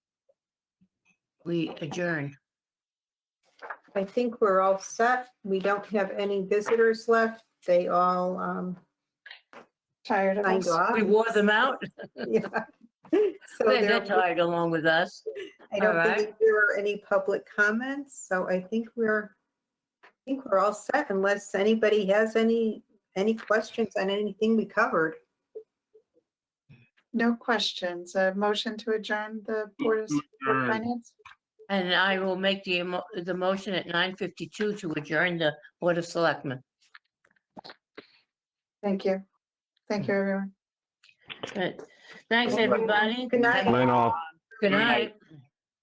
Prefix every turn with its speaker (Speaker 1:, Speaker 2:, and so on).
Speaker 1: we adjourn.
Speaker 2: I think we're all set. We don't have any visitors left. They all um,
Speaker 3: Tired of
Speaker 2: signed
Speaker 3: us.
Speaker 2: off.
Speaker 1: We wore them out.
Speaker 2: Yeah. So
Speaker 1: They're
Speaker 2: there,
Speaker 1: they're tired along with us.
Speaker 2: I don't
Speaker 1: alright.
Speaker 2: think there are any public comments, so I think we're, I think we're all set unless anybody has any, any questions on anything we covered.
Speaker 3: No questions. A motion to adjourn the Board of S- Board of
Speaker 4: Adjourn.
Speaker 3: Finance?
Speaker 1: And I will make the, emo- the motion at 9:52 to adjourn the Board of Selectmen.
Speaker 3: Thank you. Thank you, everyone.
Speaker 1: Good. Thanks, everybody.
Speaker 2: Good night.
Speaker 4: Night all.
Speaker 1: Good
Speaker 4: Good
Speaker 1: night.
Speaker 4: night.